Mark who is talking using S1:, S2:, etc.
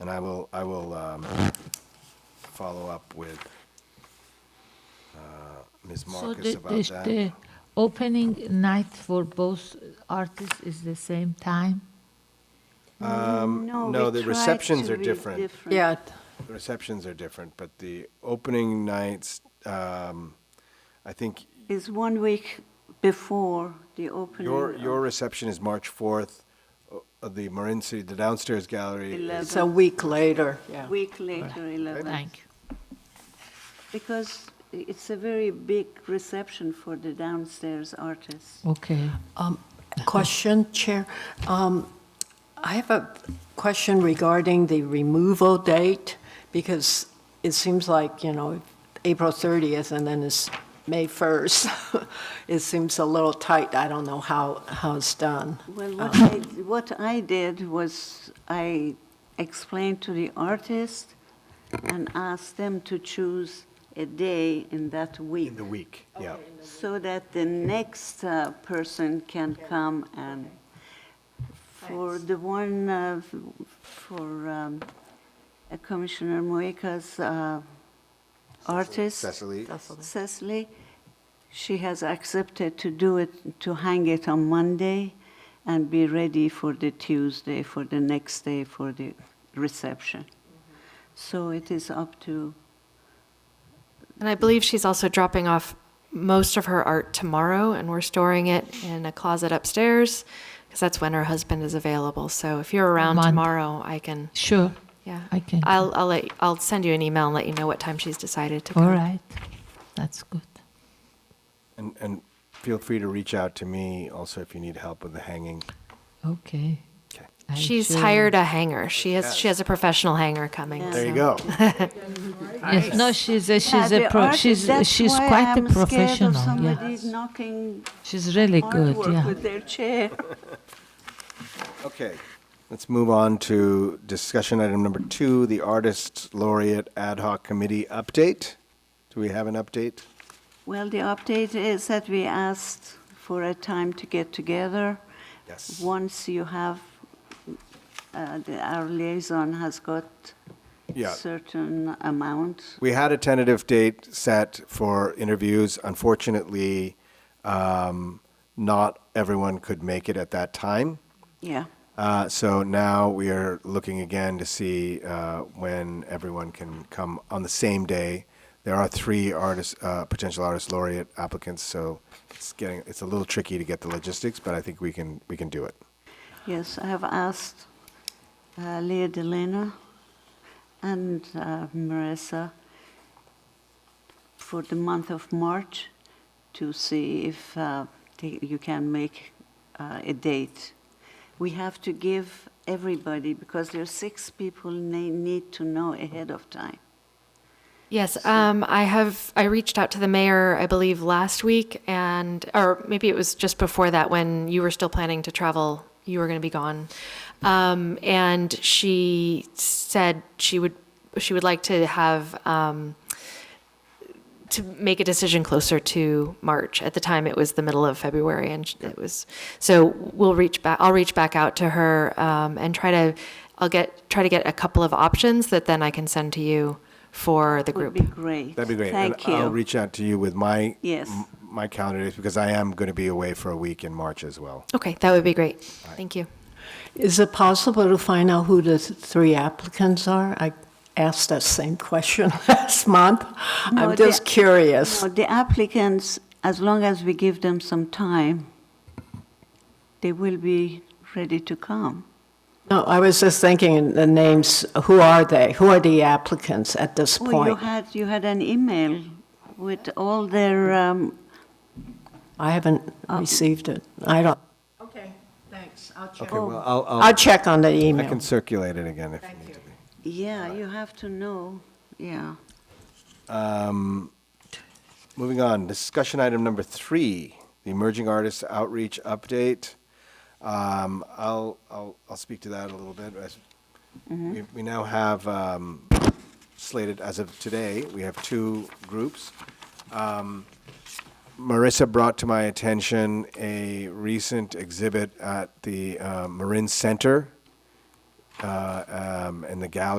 S1: And I will, I will um, follow up with uh, Ms.
S2: So
S1: Marcus
S2: the,
S1: about
S2: the,
S1: that.
S2: the opening night for both artists is the same time?
S3: No,
S1: Um, no,
S3: we
S1: the
S3: tried
S1: receptions
S3: to
S1: are
S3: be
S1: different.
S4: Yeah,
S1: The Receptions are different, but the opening nights, um, I think
S3: It's one week before the opening.
S1: your,
S3: of-
S1: your reception is March 4th, uh, the Marin City, the downstairs gallery. is-
S3: Eleven.
S4: it's a week later, yeah.
S3: Week later, 11.
S2: Thank you.
S3: Because it's a very big reception for the downstairs artists.
S2: Okay.
S4: Um, Question, Chair. Um, I have a question regarding the removal date, because it seems like, you know, April 30th and then it's May 1st. It seems a little tight. I don't know how, how it's done.
S3: Well, what
S4: Uh-huh.
S3: I, what I did was I explained to the artist and asked them to choose a day in that week
S1: In the week, yeah.
S3: so that the next uh, person can come and for the one, uh, f- for um, uh, Commissioner Moika's uh, artist.
S1: Cecily,
S3: Cecily, she has accepted to do it, to hang it on Monday and be ready for the Tuesday, for the next day, for the reception. So it is up to,
S5: And I believe she's also dropping off most of her art tomorrow, and we're storing it in a closet upstairs because that's when her husband is available. So if you're around
S2: Monday.
S5: tomorrow, I can.
S2: Sure.
S5: Yeah,
S2: I can.
S5: I'll I'll let I'll send you an email and let you know what time she's decided to come.
S2: All right. That's good.
S1: and, and feel free to reach out to me also if you need help with the hanging.
S2: Okay.
S1: Okay.
S2: I
S5: She's
S2: sure-
S5: hired a hanger. She has she has a professional hanger coming.
S3: Yeah.
S1: There you
S5: so-
S1: go.
S2: Yes, no, she's a, she's
S3: Yeah,
S2: a
S3: the
S2: pro,
S3: artist-
S2: she's,
S3: that's
S2: she's
S3: why
S2: quite a
S3: I'm scared of
S2: professional, yeah.
S3: Somebody knocking
S2: She's really good,
S3: artwork
S2: yeah.
S3: with their chair.
S1: Okay, let's move on to discussion item number two, the Artist Laureate Ad Hoc Committee update. Do we have an update?
S3: Well, the update is that we asked for a time to get together.
S1: Yes.
S3: Once you have, uh, the- our liaison has got
S1: Yeah.
S3: certain amount.
S1: We had a tentative date set for interviews. Unfortunately, um, not everyone could make it at that time.
S3: Yeah,
S1: Uh, so now we are looking again to see uh, when everyone can come on the same day. There are three artists, uh, potential artist laureate applicants, so it's getting it's a little tricky to get the logistics, but I think we can we can do it.
S3: yes, I have asked uh, Leah Delena and uh, Marissa for the month of March to see if uh, they- you can make uh, a date. We have to give everybody, because there are six people, and they need to know ahead of time.
S5: Yes, um, I have. I reached out to the mayor, I believe, last week, and or maybe it was just before that when you were still planning to travel. You were going to be gone, um, and she said she would she would like to have um, to make a decision closer to March. At the time, it was the middle of February, and sh- it was so. We'll reach back. I'll reach back out to her um, and try to. I'll get try to get a couple of options that then I can send to you for the
S3: Would
S5: group.
S3: be great.
S1: That'd be great.
S3: Thank
S1: and I'll
S3: you.
S1: reach out to you with my
S3: Yes.
S1: my calendar dates because I am going to be away for a week in March as well.
S5: Okay, that would be great. Thank you.
S4: Is it possible to find out who the three applicants are? I asked that same question last month.
S3: No,
S4: I'm just
S3: the-
S4: curious.
S3: No, The applicants, as long as we give them some time, they will be ready to come.
S4: No, I was just thinking the names, who are they? Who are the applicants at this
S3: Oh, you
S4: point?
S3: had, you had an email with all their, um,
S4: I haven't received it. I don't. Oh. Okay, thanks. I'll check.
S1: Okay, well, I'll, I'll,
S4: I'll check on the
S1: I can
S4: email.
S1: circulate it again if you need to.
S3: yeah, you have to know, yeah.
S1: Moving on, discussion item number three, the Emerging Artists Outreach Update. Um, I'll, I'll, I'll speak to that a little bit. as- We, we now have um, slated, as of today, we have two groups. Um, Marissa brought to my attention a recent exhibit at the uh, Marin Center uh, um, and the gallery